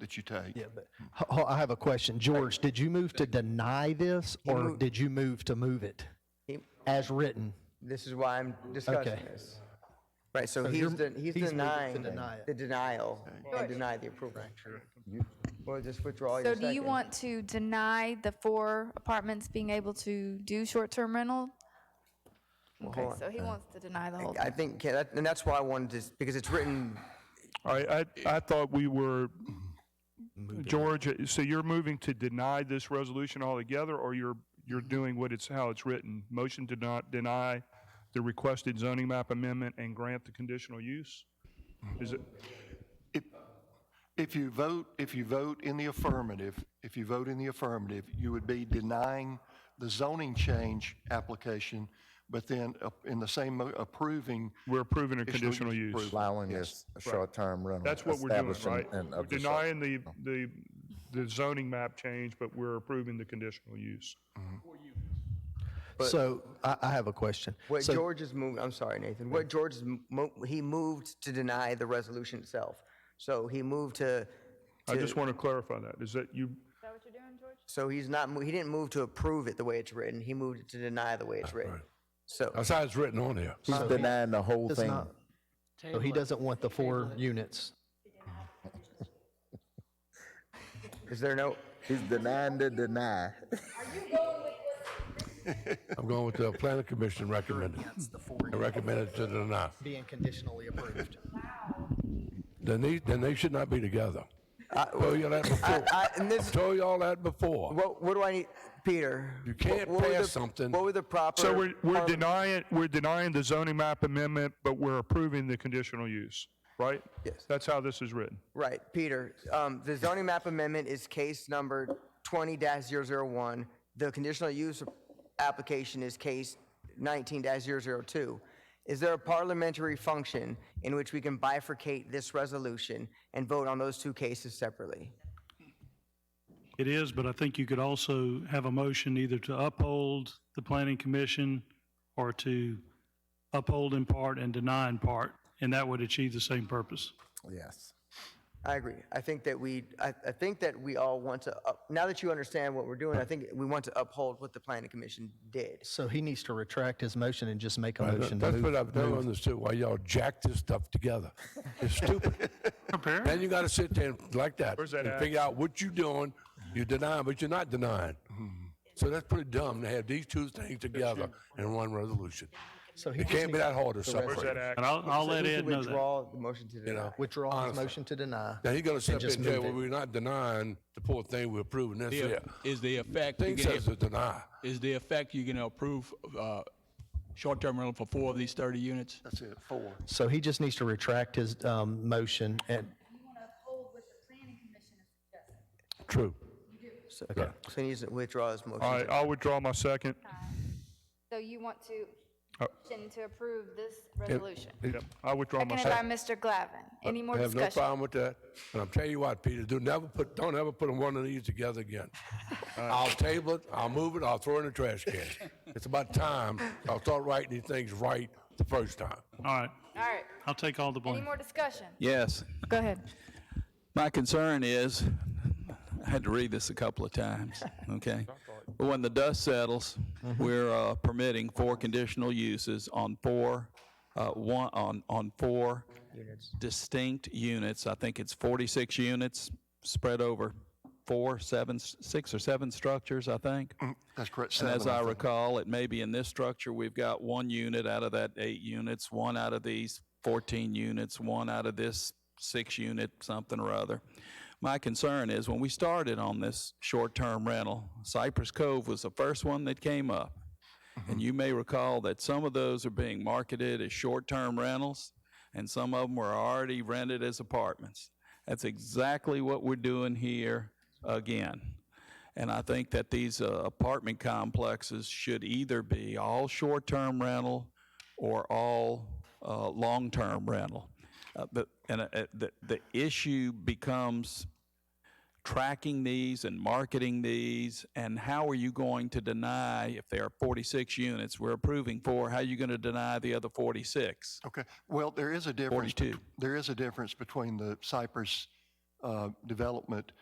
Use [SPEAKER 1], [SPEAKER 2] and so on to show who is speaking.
[SPEAKER 1] that you take.
[SPEAKER 2] Yeah, but Ho- ho- I have a question. George, did you move to deny this or
[SPEAKER 3] moved-
[SPEAKER 2] did you move to move it
[SPEAKER 3] He-
[SPEAKER 2] as written?
[SPEAKER 3] This is why I'm discussing
[SPEAKER 2] Okay.
[SPEAKER 3] this. Right, so he's,
[SPEAKER 2] you're-
[SPEAKER 3] den-
[SPEAKER 2] he's
[SPEAKER 3] he's
[SPEAKER 2] moving to
[SPEAKER 3] denying
[SPEAKER 2] deny it.
[SPEAKER 3] the denial and deny the approval. Well, just withdraw your
[SPEAKER 4] So
[SPEAKER 3] second.
[SPEAKER 4] do you want to deny the four apartments being able to do short-term rental? Okay, so he wants to deny the whole
[SPEAKER 3] I
[SPEAKER 4] thing.
[SPEAKER 3] think, yeah, that- and that's why I wanted to, because it's written,
[SPEAKER 5] All
[SPEAKER 6] Eh.
[SPEAKER 5] right, I, I thought we were, George, so you're moving to deny this resolution altogether, or you're, you're doing what it's, how it's written? Motion to not deny the requested zoning map amendment and grant the conditional use? Is it,
[SPEAKER 1] If, if you vote, if you vote in the affirmative, if you vote in the affirmative, you would be denying the zoning change application, but then uh, in the same mo- approving.
[SPEAKER 5] we're approving a conditional
[SPEAKER 1] Conditional use
[SPEAKER 5] use?
[SPEAKER 6] allowing this short-term rental.
[SPEAKER 5] That's what we're doing,
[SPEAKER 6] establishing
[SPEAKER 5] right?
[SPEAKER 6] and
[SPEAKER 5] We're
[SPEAKER 6] of the short-
[SPEAKER 5] denying the, the, the zoning map change, but we're approving the conditional use.
[SPEAKER 2] So I, I have a question.
[SPEAKER 3] what
[SPEAKER 2] So-
[SPEAKER 3] George is moving, I'm sorry, Nathan, what George is, mo- he moved to deny the resolution itself. So he moved to,
[SPEAKER 5] I just want to clarify that. Is that you,
[SPEAKER 3] so he's not, mo- he didn't move to approve it the way it's written, he moved it to deny the
[SPEAKER 5] Ah,
[SPEAKER 3] way it's written. So,
[SPEAKER 7] That's how it's written on here.
[SPEAKER 6] He's denying the whole
[SPEAKER 2] Does
[SPEAKER 6] thing.
[SPEAKER 2] not- So he doesn't want the four units.
[SPEAKER 3] is there no,
[SPEAKER 6] He's denying the deny.
[SPEAKER 7] I'm going with the planning commission recommended. I recommended to deny.
[SPEAKER 2] Being conditionally approved.
[SPEAKER 7] Then they, then they should not be together. I told you that before.
[SPEAKER 3] I- and this-
[SPEAKER 7] Told y'all that before.
[SPEAKER 3] what, what do I need, Peter?
[SPEAKER 7] You
[SPEAKER 3] what-
[SPEAKER 7] can't
[SPEAKER 3] what were
[SPEAKER 7] pass
[SPEAKER 3] the-
[SPEAKER 7] something.
[SPEAKER 3] What were the proper?
[SPEAKER 5] so we're, we're
[SPEAKER 3] parliament-
[SPEAKER 5] denying, we're denying the zoning map amendment, but we're approving the conditional use, right?
[SPEAKER 3] Yes.
[SPEAKER 5] That's how this is written.
[SPEAKER 3] Right, Peter, um, the zoning map amendment is case number twenty one The conditional use application is case nineteen 2 Is there a parliamentary function in which we can bifurcate this resolution and vote on those two cases separately?
[SPEAKER 8] It is, but I think you could also have a motion either to uphold the planning commission or to uphold in part and deny in part, and that would achieve the same purpose.
[SPEAKER 6] Yes.
[SPEAKER 3] I agree. I think that we, I, I think that we all want to, up- now that you understand what we're doing, I think we want to uphold what the planning commission did.
[SPEAKER 2] So he needs to retract his motion and just make a motion to
[SPEAKER 7] That's
[SPEAKER 2] move.
[SPEAKER 7] what I've never understood, why y'all jack this stuff together. It's stupid. Then you gotta sit there and like that.
[SPEAKER 5] Where's that
[SPEAKER 7] And
[SPEAKER 5] at?
[SPEAKER 7] figure out what you doing, you're denying, but you're not denying. So that's pretty dumb to have these two things together in one resolution.
[SPEAKER 2] So he
[SPEAKER 7] It
[SPEAKER 2] just
[SPEAKER 7] can't be
[SPEAKER 2] needs
[SPEAKER 7] that hard to
[SPEAKER 5] Where's that
[SPEAKER 7] separate,
[SPEAKER 5] act?
[SPEAKER 8] And I'll, I'll let
[SPEAKER 3] We should
[SPEAKER 8] Ed know that.
[SPEAKER 3] Withdraw the motion to
[SPEAKER 7] you
[SPEAKER 3] deny.
[SPEAKER 7] know?
[SPEAKER 2] Withdraw his
[SPEAKER 7] Honestly.
[SPEAKER 2] motion to deny.
[SPEAKER 7] Now he's gonna sit up
[SPEAKER 2] just
[SPEAKER 7] and jail
[SPEAKER 2] move
[SPEAKER 7] where
[SPEAKER 2] it.
[SPEAKER 7] we're not denying the poor thing we're approving, that's
[SPEAKER 9] the-
[SPEAKER 7] it.
[SPEAKER 9] Is the effect, you
[SPEAKER 7] Thing
[SPEAKER 9] gonna-
[SPEAKER 7] says to deny.
[SPEAKER 9] is the effect you're going to approve uh, short-term rental for four of these 30 units?
[SPEAKER 1] That's it, four.
[SPEAKER 2] So he just needs to retract his um, motion and,
[SPEAKER 7] True.
[SPEAKER 2] okay.
[SPEAKER 3] So he needs to withdraw his motion.
[SPEAKER 5] All
[SPEAKER 3] to
[SPEAKER 5] right, I'll withdraw my second.
[SPEAKER 4] So you want to,
[SPEAKER 7] Oh.
[SPEAKER 5] Uh,
[SPEAKER 4] motion to approve this resolution?
[SPEAKER 5] Yep, I withdraw my
[SPEAKER 4] Seconded by
[SPEAKER 5] second.
[SPEAKER 4] Mr. Glavin. Any more
[SPEAKER 7] I have no
[SPEAKER 4] discussion?
[SPEAKER 7] problem with that. And I'm telling you what, Peter, do never put, don't ever put one of these together again. I'll table it, I'll move it, I'll throw it in the trash can. It's about time I'll start writing these things right the first time.
[SPEAKER 8] All right,
[SPEAKER 4] All right.
[SPEAKER 8] I'll take all the blame.
[SPEAKER 4] Any more discussion?
[SPEAKER 9] Yes.
[SPEAKER 4] Go ahead.
[SPEAKER 9] My concern is, I had to read this a couple of times, okay? But when the dust settles, we're uh, permitting four conditional uses on four, uh, one, on, on four distinct units. I think it's 46 units spread over four, seven, s- six or seven structures, I think.
[SPEAKER 1] That's correct,
[SPEAKER 9] And
[SPEAKER 1] seven.
[SPEAKER 9] as I recall, it may be in this structure, we've got one unit out of that eight units, one out of these 14 units, one out of this six unit, something or other. My concern is when we started on this short-term rental, Cypress Cove was the first one that came up. And you may recall that some of those are being marketed as short-term rentals, and some of them were already rented as apartments. That's exactly what we're doing here again. And I think that these uh, apartment complexes should either be all short-term rental or all uh, long-term rental. Uh, the- And uh, uh, the the issue becomes tracking these and marketing these, and how are you going to deny, if there are 46 units we're approving for, how are you going to deny the other 46?
[SPEAKER 1] Okay, well, there is a difference. bet-
[SPEAKER 9] 42.
[SPEAKER 1] There is a difference between the Cypress uh, development